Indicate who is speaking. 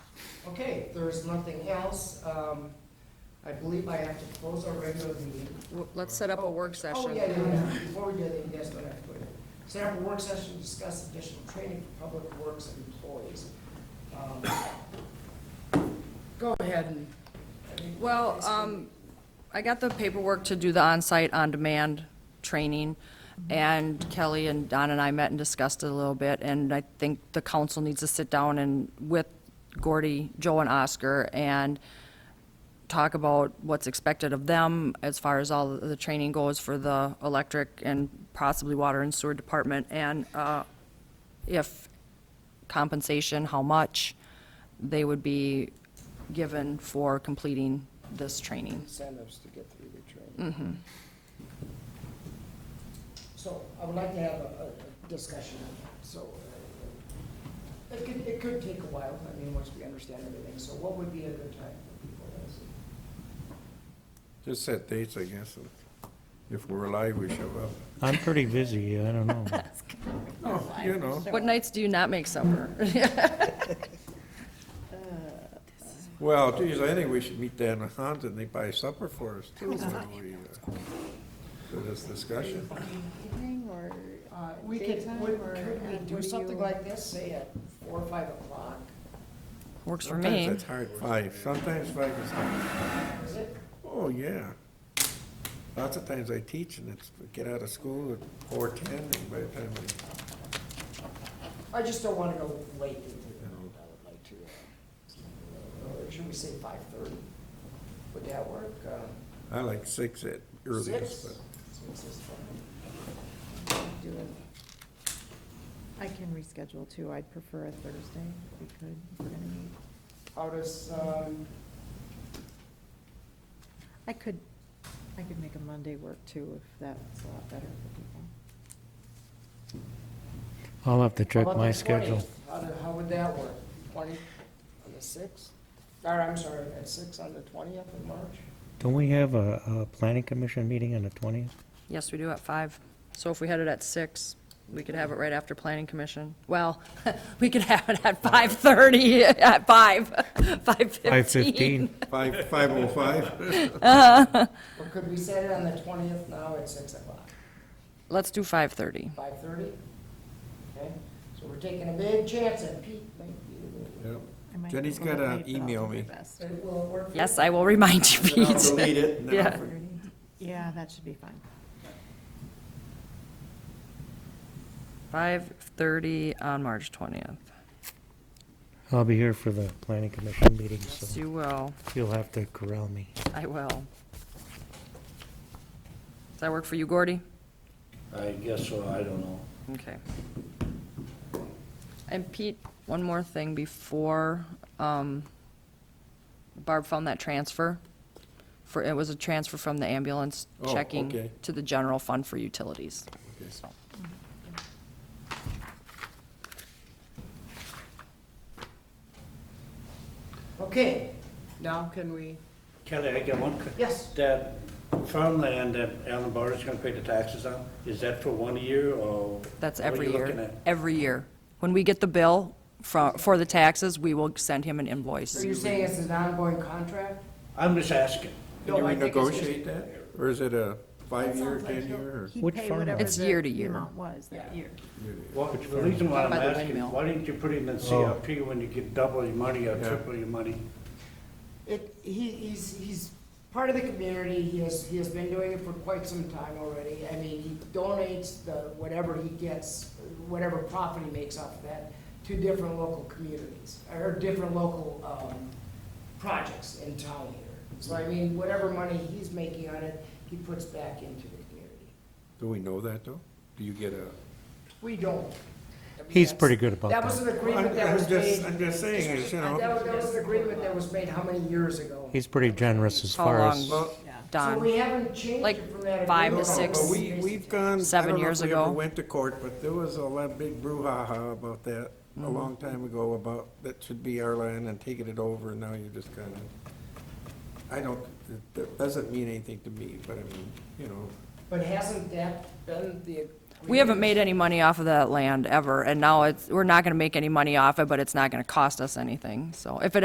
Speaker 1: Okay, if there's nothing else, um, I believe I have to close our regular meeting.
Speaker 2: W- Let's set up a work
Speaker 1: Oh, yeah, yeah,
Speaker 2: session.
Speaker 1: yeah, before we do that, yes, what I have to put in. Set up a work session, to discuss additional training for public works employees. Um, Go ahead and. I think-
Speaker 2: Well, um, I got the paperwork to do the on-site, on-demand training, and Kelly and Don and I met and discussed it a little bit, and I think the council needs to sit down and, with Gordy, Joe, and Oscar, and talk about what's expected of them as far as all the training goes for the electric and possibly water and sewer department, and, uh, if compensation, how much they would be given for completing this training.
Speaker 3: incentives to get through the training. Mm-hmm.
Speaker 1: So I would like to have a, a- a discussion on that, so. uh, It could, it could take a while, I mean, once we understand everything, so what would be a good time for people?
Speaker 4: Just set dates, I guess. If we're alive, we show up.
Speaker 5: I'm pretty busy, I don't know.
Speaker 4: Oh, you know,
Speaker 2: What nights do you not make supper?
Speaker 4: well, geez, I think we should meet Dan and Hans and they buy supper for us too. when we, uh, For this discussion.
Speaker 3: Evening or
Speaker 1: Uh, We could,
Speaker 3: Daytime
Speaker 1: would,
Speaker 3: or
Speaker 1: could we
Speaker 3: at-
Speaker 1: do
Speaker 3: what do
Speaker 1: something
Speaker 3: you-
Speaker 1: like this, say at four or five o'clock?
Speaker 2: Works for
Speaker 4: Sometimes
Speaker 2: me.
Speaker 4: It's hard, five, sometimes five is hard.
Speaker 1: Is it?
Speaker 4: Oh, yeah. Lots of times I teach and it's, get out of school at four ten and by the time I,
Speaker 1: I just don't wanna go late into the night, I would like to, uh, or should we say five thirty? Would that work? Uh,
Speaker 4: I like six at earliest,
Speaker 1: Six?
Speaker 4: but.
Speaker 1: Six is fine.
Speaker 3: do it? I can reschedule too. I'd prefer a Thursday if we could. if we're gonna meet.
Speaker 1: How does, um,
Speaker 3: I could, I could make a Monday work too if that's a lot better for people.
Speaker 5: I'll have to
Speaker 1: How
Speaker 5: check
Speaker 1: about
Speaker 5: my
Speaker 1: the 20th?
Speaker 5: schedule.
Speaker 1: How, do- how would that work? Twenty on the sixth? Or, I'm sorry, at six on the twentieth of March?
Speaker 5: Don't we have a, a planning commission meeting on the twentieth?
Speaker 2: Yes, we do at five. So if we had it at six, we could have it right after planning commission. Well, we could have it at five thirty, at five, five fifteen.
Speaker 5: Five fifteen?
Speaker 4: Five, five oh five?
Speaker 1: Or could we set it on the twentieth now at six o'clock,
Speaker 2: Let's do five thirty.
Speaker 1: five thirty? Okay, so we're taking a big chance and Pete might be the-
Speaker 4: Yep.
Speaker 3: I might
Speaker 4: Jenny's
Speaker 3: be a little
Speaker 4: gotta
Speaker 3: late, but I'll
Speaker 4: email
Speaker 3: do my
Speaker 4: me.
Speaker 3: best.
Speaker 1: It will work. for
Speaker 2: Yes,
Speaker 1: you?
Speaker 2: I will remind you,
Speaker 4: Then I'll
Speaker 2: Pete.
Speaker 4: delete it and then I'll
Speaker 2: Yeah.
Speaker 4: forget.
Speaker 3: Yeah, that should be fine.
Speaker 2: Five thirty on March twentieth.
Speaker 5: I'll be here for the planning commission meeting,
Speaker 2: Yes,
Speaker 5: so
Speaker 2: you will.
Speaker 5: you'll have to corral me.
Speaker 2: I will. Does that work for you, Gordy?
Speaker 6: I guess so, I don't know.
Speaker 2: Okay. And Pete, one more thing before, um, Barb found that transfer. For, it was a transfer from the ambulance
Speaker 4: Oh,
Speaker 2: checking
Speaker 4: okay.
Speaker 2: to the general fund for utilities.
Speaker 4: Okay.
Speaker 2: So,
Speaker 1: Okay, now can we,
Speaker 6: Kelly, I got one. que-
Speaker 1: yes,
Speaker 6: That farmland that Alan Barter's gonna pay the taxes on, is that for one year or?
Speaker 2: That's
Speaker 6: what are
Speaker 2: every
Speaker 6: you looking
Speaker 2: year,
Speaker 6: at?
Speaker 2: every year. When we get the bill for, for the taxes, we will send him an invoice.
Speaker 1: are you saying it's an ongoing contract?
Speaker 6: I'm just asking.
Speaker 4: Can you
Speaker 1: No, I think it's just-
Speaker 4: renegotiate that? Or is it a five-year, ten-year?
Speaker 3: He'd
Speaker 5: Which
Speaker 3: pay
Speaker 5: farm?
Speaker 3: whatever
Speaker 2: It's
Speaker 3: the-
Speaker 2: year to
Speaker 3: the
Speaker 2: year.
Speaker 3: amount was that year.
Speaker 6: Well, the reason why I'm
Speaker 2: By the
Speaker 6: asking,
Speaker 2: windmill.
Speaker 6: why didn't you put it in CRP when you get double your money or
Speaker 4: Yeah.
Speaker 6: triple your money?
Speaker 1: It, he, he's, he's part of the community, he has, he has been doing it for quite some time already. I mean, he donates the, whatever he gets, whatever profit he makes off of that, to different local communities, or different local, um, projects in town here. So I mean, whatever money he's making on it, he puts back into the community.
Speaker 4: Do we know that, though? Do you get a?
Speaker 1: We don't. I mean,
Speaker 5: He's
Speaker 1: that's-
Speaker 5: pretty good about
Speaker 1: That was
Speaker 5: that.
Speaker 1: an agreement that
Speaker 4: I'm
Speaker 1: was
Speaker 4: just-
Speaker 1: made.
Speaker 4: I'm just saying, it's, you know.
Speaker 1: That was, that was an agreement that was made how many years ago?
Speaker 5: He's pretty generous as
Speaker 2: How
Speaker 5: far
Speaker 2: long?
Speaker 5: as,
Speaker 4: Well,
Speaker 1: So
Speaker 2: Don,
Speaker 1: we haven't changed
Speaker 2: Like
Speaker 1: it from that.
Speaker 2: five
Speaker 4: no,
Speaker 2: to
Speaker 4: no,
Speaker 1: agreement.
Speaker 2: six.
Speaker 4: but we, we've gone. I
Speaker 2: Seven
Speaker 4: don't know if
Speaker 2: years
Speaker 4: we ever
Speaker 2: ago.
Speaker 4: Went to court, but there was a lot, big brouhaha about that a
Speaker 2: Mm-hmm.
Speaker 4: long time ago about that should be our land and taking it over, and now you're just kind of, I don't, it- that doesn't mean anything to me, but I mean, you know,
Speaker 1: But hasn't that been the?
Speaker 2: we haven't made any money off of that land ever, and now it's, we're not gonna make any money off it, but it's not gonna cost us anything. So if it